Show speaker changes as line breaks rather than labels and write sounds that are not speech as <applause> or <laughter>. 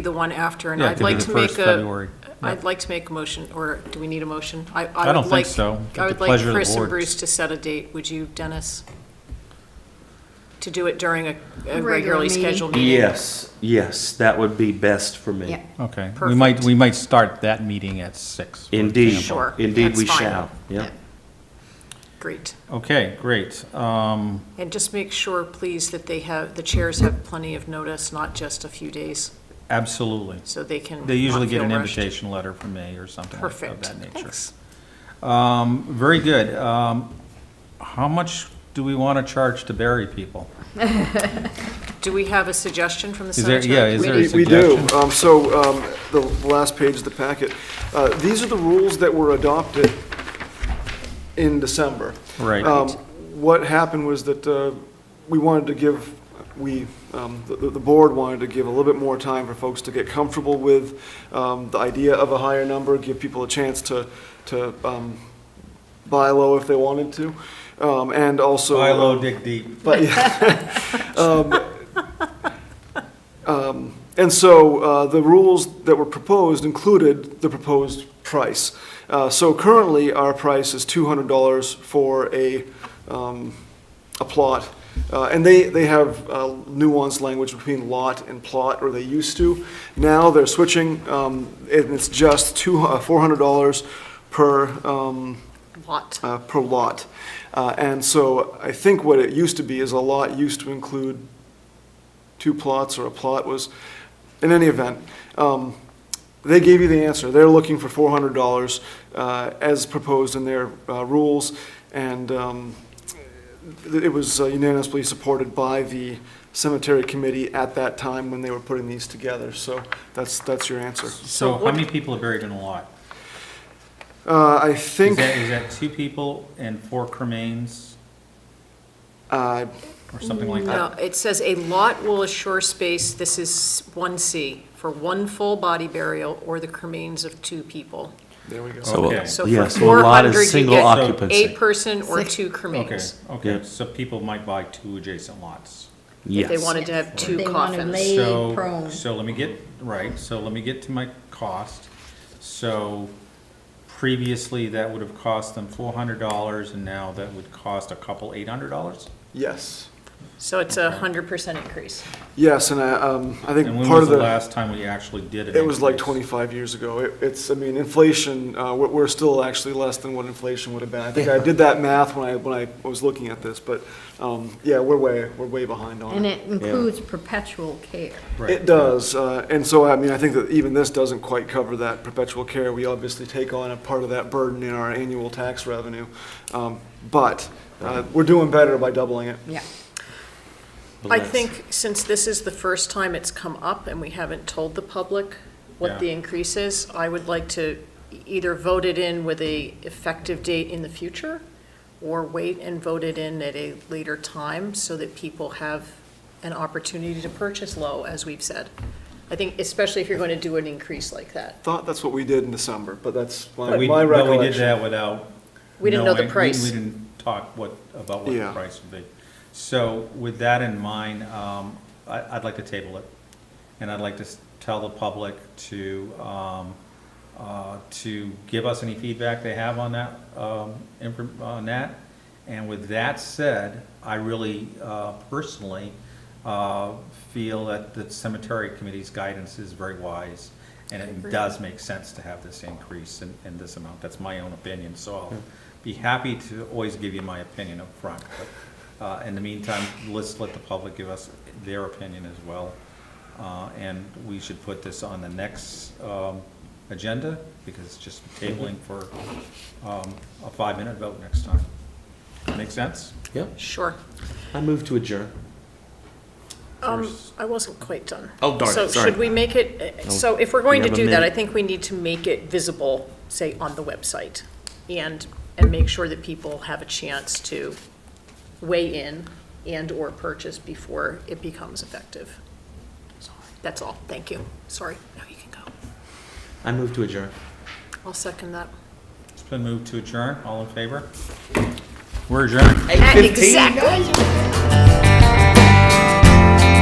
the one after, and
Yeah, it
I'd
could be
like
the
to make
first
a,
February.
I'd like to make a motion, or do we need a motion?
I
would
don't think
like-
so. At
I
the
would like
pleasure of the
Chris and
board.
Bruce to set a date, would you, Dennis? To do it during a- a
Regular
regularly
meeting.
scheduled meeting?
Yes, yes, that would be best for me.
Yeah.
Okay, we might,
Perfect.
we might start that meeting at six. for
Indeed.
example.
Sure.
Indeed,
that's
we
fine.
shall, yeah.
Great.
Okay, great. Um,
And just make sure, please, that they have, the chairs have plenty of notice, not just a few days,
absolutely.
so they can.
They usually
not
get
feel
an
rushed.
invitation letter from me or something like- of
Perfect,
that nature.
thanks.
Um, very good. Um, how much do we want to charge to bury people?
Do we have a suggestion from the
Is there,
cemetery?
yeah, is there a
We we do.
suggestion?
Um, So um, the the last page of the packet, Uh, these are the rules that were adopted in December.
Right.
Um, What happened was that uh, we wanted to give, we, um, the the board wanted to give a little bit more time for folks to get comfortable with um, the idea of a higher number, give people a chance to, to um, buy low if they wanted to, um, and also.
Buy low, dig deep.
But, <laughs> yeah. um, um, and so uh, the rules that were proposed included the proposed price. Uh, so currently, our price is $200 for a, um, a plot. Uh, and they, they have uh, nuanced language between lot and plot, or they used to. Now they're switching, um, and it's just two, uh, $400 per um,
Lot.
uh, per lot. Uh, And so I think what it used to be is a lot used to include two plots or a plot was, in any event, um, they gave you the answer. They're looking for $400 uh, as proposed in their uh, rules. And um, it was uh, unanimously supported by the cemetery committee at that time when they were putting these together. So that's, that's your answer.
So how many people are buried in a lot?
Uh, I
Is
think,
that, is that two people and four cremains
uh,
or something like that?
No, it says a lot will assure space, this is one C, for one full body burial or the cremains of two people.
there we go.
So,
Okay.
So for
Yes, well, a lot is
400, you
single
get
occupancy.
A person or two
Okay,
cremains,
okay,
Yeah.
so people might buy two adjacent lots.
if they
Yes.
wanted to have two
They wanna
coffins.
lay-
So-
prone.
So let me get, right, so let me get to my cost. So previously, that would have cost them four hundred dollars, and now that would cost a couple eight hundred dollars?
Yes.
So it's a hundred percent increase.
Yes, and I, um, I think
And when
part
was
of
the
the,
last time we actually did it?
it was like 25 years ago. It- It's, I mean, inflation, uh, we're, we're still actually less than what inflation would have been. I think I did that math when I, when I was looking at this, but, um, yeah, we're way, we're way behind on
And
it.
it includes perpetual care.
It does, uh, and so, I mean, I think that even this doesn't quite cover that perpetual care. We obviously take on a part of that burden in our annual tax revenue. Um, But, uh, we're doing better by doubling it.
Yeah.
I think since this is the first time it's come up and we haven't told the public
Yeah.
what the increase is, I would like to either vote it in with a effective date in the future or wait and vote it in at a later time so that people have an opportunity to purchase low, as we've said. I think especially if you're going to do an increase like that.
Thought that's what we did in December, but that's my
But we,
my
but we did
recollection.
that without.
We didn't know the
knowing- we-
price.
We didn't talk what, about what the
Yeah.
price would be. So with that in mind, um, I, I'd like to table it. And I'd like to s- tell the public to, um, uh, to give us any feedback they have on that, um, infor- on that. And with that said, I really, uh, personally, uh, feel that the cemetery committee's guidance is very wise. And it does make sense to have this increase in, in this amount. That's my own opinion, so I'll be happy to always give you my opinion up front. But, uh, in the meantime, let's let the public give us their opinion as well. Uh, and we should put this on the next, um, agenda, because it's just tabling for, um, a five-minute vote next time. Make sense?
Yep,
Sure.
I move to adjourn.
Um,
First-
I wasn't quite done.
Oh, darn it,
So
sorry.
should we make it, uh, so if we're going
we
to
have a
do that, I
minute.
think we need to make it visible, say, on the website, and, and make sure that people have a chance to weigh in and/or purchase before it becomes effective. That's all, thank you, sorry, now you can go.
I move to adjourn.
I'll second that.
It's been moved to adjourn, all in favor? We're adjourned.
Exactly.